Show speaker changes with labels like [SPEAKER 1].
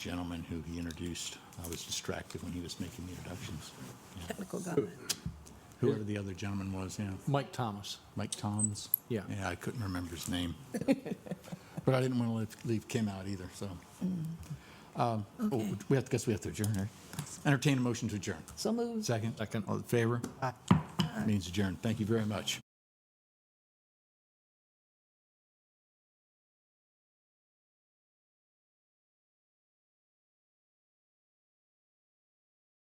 [SPEAKER 1] gentleman who he introduced. I was distracted when he was making the introductions.
[SPEAKER 2] Technical government.
[SPEAKER 1] Whoever the other gentleman was, yeah.
[SPEAKER 3] Mike Thomas.
[SPEAKER 1] Mike Toms?
[SPEAKER 3] Yeah.
[SPEAKER 1] Yeah, I couldn't remember his name. But I didn't want to leave, leave Kim out either, so. Um, oh,
[SPEAKER 2] Okay.
[SPEAKER 1] We have, to guess we have to adjourn, right? Entertain a motion to adjourn.
[SPEAKER 2] So moved.
[SPEAKER 1] Second?
[SPEAKER 3] Second.
[SPEAKER 1] All in favor? Means adjourned. Thank you very much.